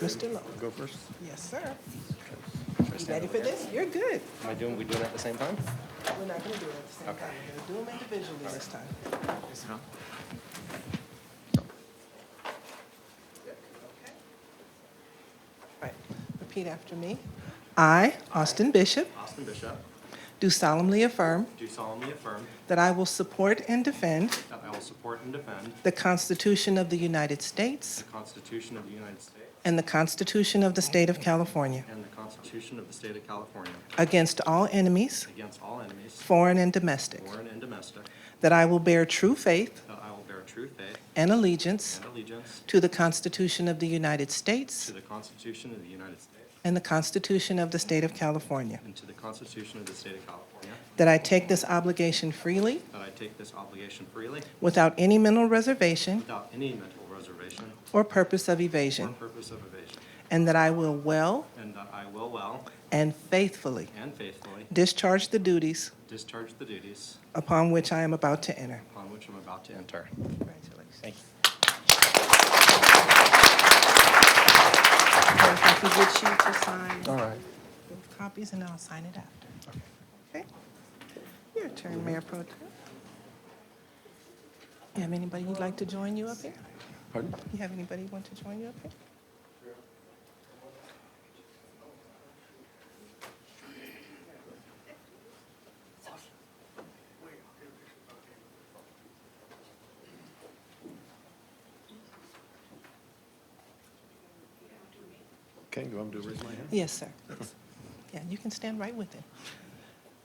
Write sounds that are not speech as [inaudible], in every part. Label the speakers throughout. Speaker 1: Mr. Lowe.
Speaker 2: Go first.
Speaker 1: Yes, sir. You ready for this? You're good.
Speaker 2: Am I doing, we doing it at the same time?
Speaker 1: We're not gonna do it at the same time. We're gonna do them individually this time. Okay. All right, repeat after me. I, Austin Bishop,
Speaker 2: Austin Bishop,
Speaker 1: do solemnly affirm
Speaker 2: do solemnly affirm
Speaker 1: that I will support and defend
Speaker 2: that I will support and defend
Speaker 1: the Constitution of the United States
Speaker 2: the Constitution of the United States
Speaker 1: and the Constitution of the State of California
Speaker 2: and the Constitution of the State of California
Speaker 1: against all enemies,
Speaker 2: against all enemies,
Speaker 1: foreign and domestic,
Speaker 2: foreign and domestic,
Speaker 1: that I will bear true faith
Speaker 2: that I will bear true faith
Speaker 1: and allegiance
Speaker 2: and allegiance
Speaker 1: to the Constitution of the United
Speaker 2: to
Speaker 1: States
Speaker 2: the Constitution of the United States
Speaker 1: and the Constitution of the State of California,
Speaker 2: and to the Constitution of the State of California,
Speaker 1: that I take this obligation freely
Speaker 2: that I take this obligation freely
Speaker 1: without any mental reservation
Speaker 2: without any mental reservation
Speaker 1: or purpose of
Speaker 2: or
Speaker 1: evasion,
Speaker 2: purpose of evasion,
Speaker 1: and that I will well
Speaker 2: and that I will well
Speaker 1: and faithfully
Speaker 2: and faithfully
Speaker 1: discharge the duties
Speaker 2: discharge the duties
Speaker 1: upon which I am about to enter.
Speaker 2: upon which I'm about to enter.
Speaker 1: Congratulations.
Speaker 2: Thank you.
Speaker 1: If I could get you to sign
Speaker 2: All right.
Speaker 1: both copies, and I'll sign it after. Okay? Your turn, Mayor Pro Tem. You have anybody who'd like to join you up here?
Speaker 2: Pardon?
Speaker 1: You have anybody who want to join you up here?
Speaker 2: Okay, do I do raise my hand?
Speaker 1: Yes,
Speaker 2: [clears throat]
Speaker 1: sir. Yes. Yeah, you can stand right with him.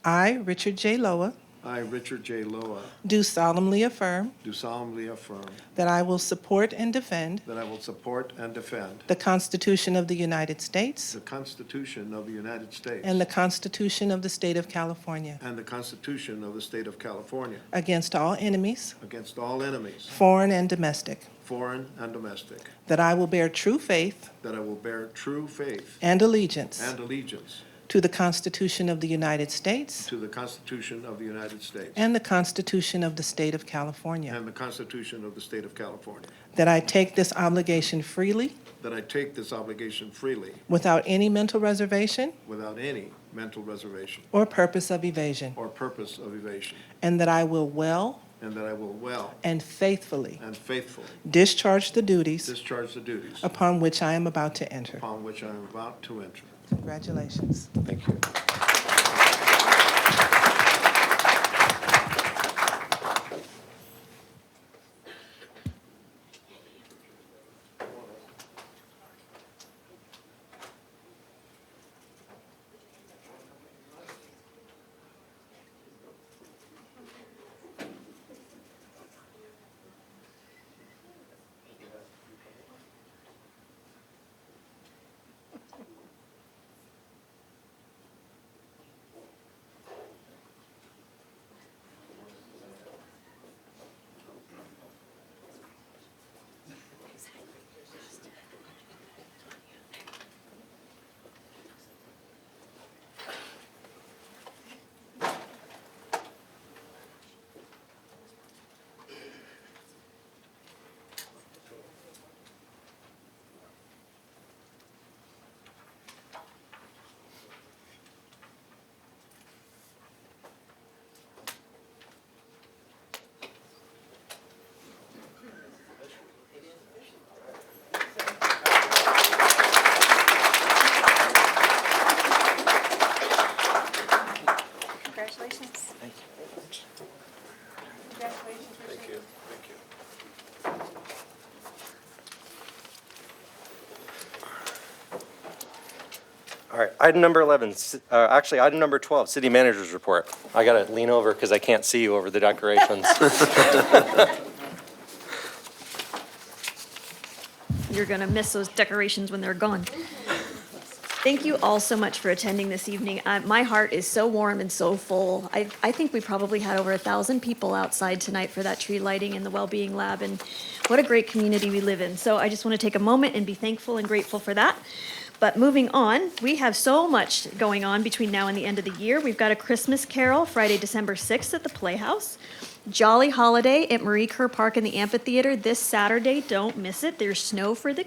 Speaker 1: I, Richard J. Loa,
Speaker 3: I, Richard J. Loa,
Speaker 1: do solemnly affirm
Speaker 3: do solemnly affirm
Speaker 1: that I will support and defend
Speaker 3: that I will support and defend
Speaker 1: the Constitution of the United States
Speaker 3: the Constitution of the United States
Speaker 1: and the Constitution of the State of California
Speaker 3: and the Constitution of the State of California
Speaker 1: against all enemies,
Speaker 3: against all enemies,
Speaker 1: foreign and domestic,
Speaker 3: foreign and domestic,
Speaker 1: that I will bear true faith
Speaker 3: that I will bear true faith
Speaker 1: and allegiance
Speaker 3: and allegiance
Speaker 1: to the Constitution of the United States
Speaker 3: to the Constitution of the United States
Speaker 1: and the Constitution of the State of California,
Speaker 3: and the Constitution of the State of California,
Speaker 1: that I take this obligation freely
Speaker 3: that I take this obligation freely
Speaker 1: without any mental reservation
Speaker 3: without any mental reservation
Speaker 1: or purpose of evasion,
Speaker 3: or purpose of evasion,
Speaker 1: and that I will well
Speaker 3: and that I will well
Speaker 1: and faithfully
Speaker 3: and faithfully
Speaker 1: discharge the duties
Speaker 3: discharge the duties
Speaker 1: upon which I am about to enter.
Speaker 3: upon which I am about to enter.
Speaker 1: Congratulations.
Speaker 3: Thank you.
Speaker 4: Congratulations. Thank you. Congratulations, Richard. Thank you.
Speaker 2: All right, item number 11, ci- uh, actually, item number 12, city manager's report. I got to lean over because I can't see you over the decorations.
Speaker 4: You're going to miss those decorations when they're gone. Thank you all so much for attending this evening. Uh, My heart is so warm and so full. I, I think we probably had over a thousand people outside tonight for that tree lighting and the well-being lab, and what a great community we live in. So I just want to take a moment and be thankful and grateful for that. But moving on, we have so much going on between now and the end of the year. We've got a Christmas Carol Friday, December 6th at the Playhouse. Jolly Holiday at Marie Kerr Park in the amphitheater this Saturday. Don't miss it. There's snow for the